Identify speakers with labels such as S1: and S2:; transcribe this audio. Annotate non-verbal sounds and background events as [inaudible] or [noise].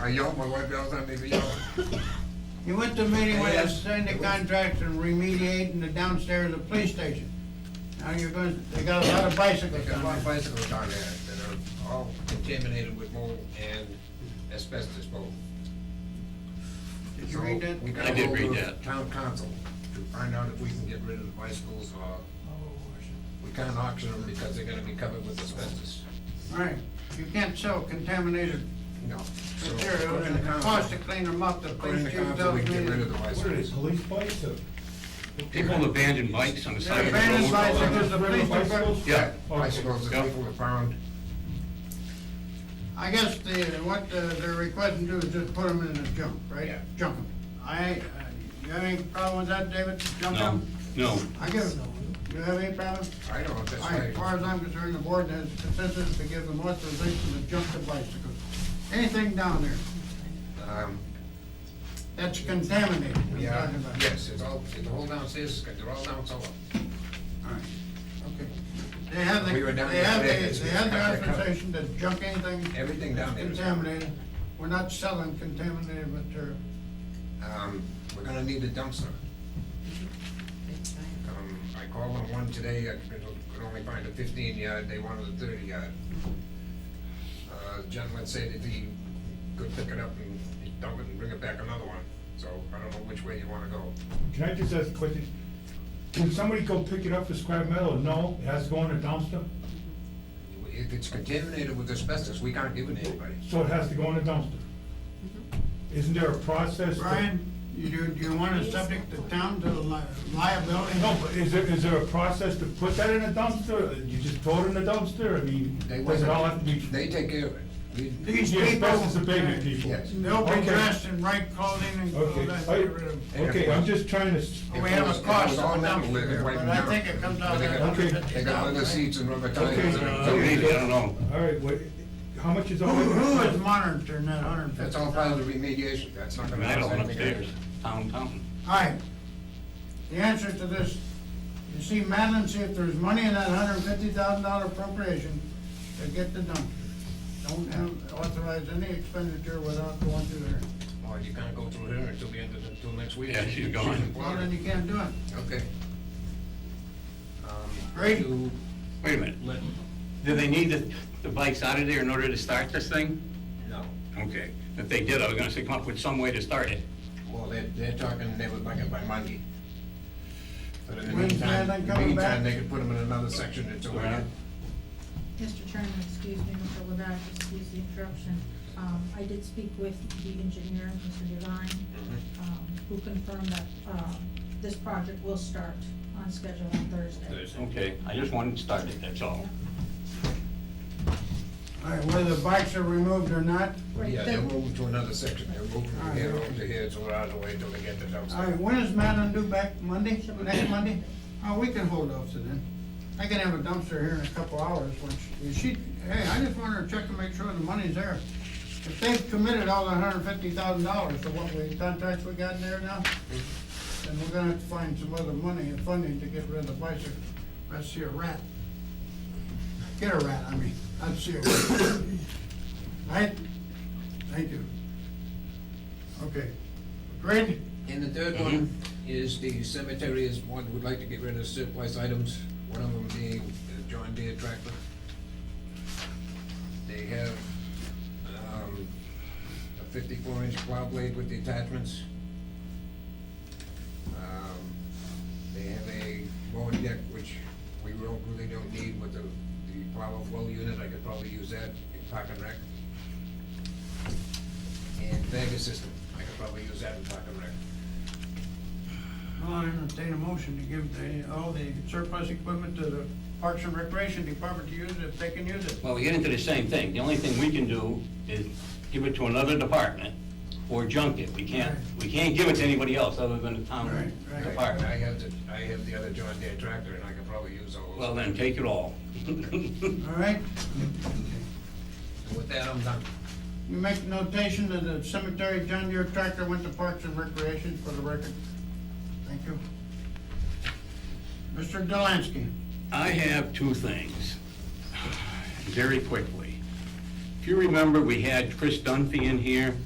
S1: I yelled, my wife yells at me for yelling.
S2: You went to a meeting where they signed the contracts and remediating the downstairs of the police station. Now you're gonna, they got a lot of bicycles
S1: There's a lot
S2: down
S1: of
S2: there.
S1: bicycles down there that are all contaminated with mold and asbestos mold.
S2: Did you read that?
S1: We gotta
S3: I did
S1: go to
S3: read
S1: the
S3: that.
S1: Town council to find out if we can get rid of the bicycles or we can't auction them because they're gonna be covered with asbestos.
S2: Right, you can't sell contaminated
S1: No. So
S2: materials
S1: according
S2: and
S1: to
S2: the cost to
S1: council,
S2: clean them up, the
S1: according
S2: police
S1: to
S2: chief
S1: council, we
S2: tells
S1: can get rid of
S2: me.
S1: the
S4: What are they,
S1: bicycles.
S4: police bikes or?
S3: People abandon bikes on the side of the road.
S2: Abandoned bicycles, the police
S4: Bicycles?
S2: department.
S3: Yeah,
S1: Bicycles that
S3: Yeah.
S1: people have found,
S2: I guess the, what the- they're requesting to do is just put them in the junk, right?
S1: Yeah.
S2: Junk 'em. I, uh, you have any problem with that, David? Junk
S3: no,
S2: 'em?
S3: no.
S2: I give it, you have any problem?
S1: I don't know if that's
S2: All right, as
S1: right.
S2: far as I'm concerned, the board has consensus to give them authorization to jump the bicycles. Anything down there
S1: Um,
S2: that's contaminated, I'm
S1: yeah,
S2: talking about.
S1: yes, it's all, the whole downstairs, they're all down cellar.
S2: All right, okay. They have the,
S1: We were down
S2: they have
S1: there today,
S2: the, they have
S1: it's-
S2: the authorization to junk anything
S1: Everything down there is.
S2: contaminated. We're not selling contaminated material.
S1: Um, we're gonna need a dumpster. Um, I called on one today, I could could only find a fifteen yard, they wanted a thirty yard. Uh, the gentleman said that he could pick it up and dump it and bring it back another one, so I don't know which way you wanna go.
S4: Can I just ask a question? Can somebody go pick it up for scrap metal? No, it has to go in a dumpster?
S1: If it's contaminated with asbestos, we can't give it to anybody.
S4: So it has to go in a dumpster? Isn't there a process? to-
S2: Mm-hmm. Brian, you do, do you want to subject the town to li- liability?
S4: No, but is there, is there a process to put that in a dumpster? You just throw it in a dumpster? I mean,
S1: They
S4: does it all have to be?
S1: They take care of it. We-
S2: These
S4: The
S2: people.
S4: asbestos abatement people?
S1: Yes.
S2: They'll be
S4: Okay.
S2: dressed in right clothing and all
S4: Okay,
S2: that.
S4: I-
S2: get rid of 'em. Oh,
S4: okay, I'm just trying to, s-
S2: We have a cost of a dumpster, but I think it comes out at
S4: Okay.
S2: hundred
S1: They
S2: fifty
S1: got leather
S2: dollars.
S1: seats and rubber
S4: Okay. uh,
S1: tires. and-
S3: So maybe, I don't know.
S4: all right, what, how much is
S2: Who,
S4: all?
S2: who is monitoring that hundred and
S1: That's
S2: fifty?
S1: all part of the remediation, that's not
S3: I
S1: gonna.
S3: mean, I
S1: cost
S3: don't want
S1: anything.
S3: upstairs, downtown.
S2: Alright, the answer to this, you see Madeline, see if there's money in that hundred and fifty thousand dollar appropriation to get the dumpster. Don't have, authorize any expenditure without going through her.
S1: Well, you can't go through here until the end of, the- until next week.
S3: Yeah, she's
S1: She's
S3: gone.
S2: Well, then
S1: employed.
S2: you can't do it.
S1: Okay. Um,
S2: Great.
S1: you-
S3: Wait a minute, do they need the, the bikes out of there in order to start this thing?
S1: No,
S3: Okay, if they did, I was gonna say, come up with some way to start it.
S1: well, they're, they're talking, they would like it by Monday. But in the
S2: When's
S1: meantime,
S2: Madeline
S1: in the
S2: coming
S1: meantime,
S2: back?
S1: they could put them in another section until we get.
S3: Alright.
S5: Mr. Chairman, excuse me, Mr. Levack, excuse the interruption. Um, I did speak with the engineer, Mr. Devine, um, who confirmed that, um, this project will start on schedule on Thursday.
S3: Okay, I just wanted to start it, that's all.
S2: Alright, whether the bikes are removed or not,
S5: Right,
S1: Yeah,
S5: the-
S1: they're moving to another section, they're moving from here
S2: Alright.
S1: over to here, so we're out of the way till they get the
S2: alright,
S1: dumpster.
S2: when is Madeline due back, Monday, next Monday? Oh, we can hold off to then. I can have a dumpster here in a couple hours when she, is she, hey, I just want her to check to make sure the money's there. If they've committed all the hundred fifty thousand dollars to what we, contracts we got in there now, then we're gonna have to find some other money and funding to get rid of the bicycle. I see a rat. Get a rat, I mean, I see a rat. Right? Thank you. Okay, great.
S1: And the third one is the cemetery is one, would like to get rid of surplus items, one of them being the John Deere tractor. They have, um, a fifty-four inch plow blade with detachments. Um, They have a mowing deck, which we don't, really don't need with the, the plow flow unit, I could probably use that in park and rec. And Vega system, I could probably use that in park and rec.
S2: I'll entertain a motion to give the, all the surplus equipment to the Parks and Recreation Department to use it if they can use it.
S3: Well, we get into the same thing. The only thing we can do is give it to another department or junk it. We can't, we can't give it to anybody else other than the town
S2: Right, right.
S1: Right,
S3: department.
S1: I have the, I have the other John Deere tractor, and I could probably use all those.
S3: Well, then, take it all. [laughs]
S2: All right?
S1: And With that, I'm done.
S2: You make notation that the cemetery John Deere tractor went to Parks and Recreation for the record. Thank you. Mr. Delansky,
S3: I have two things, [sighs] very quickly. If you remember, we had Chris Dunphy in here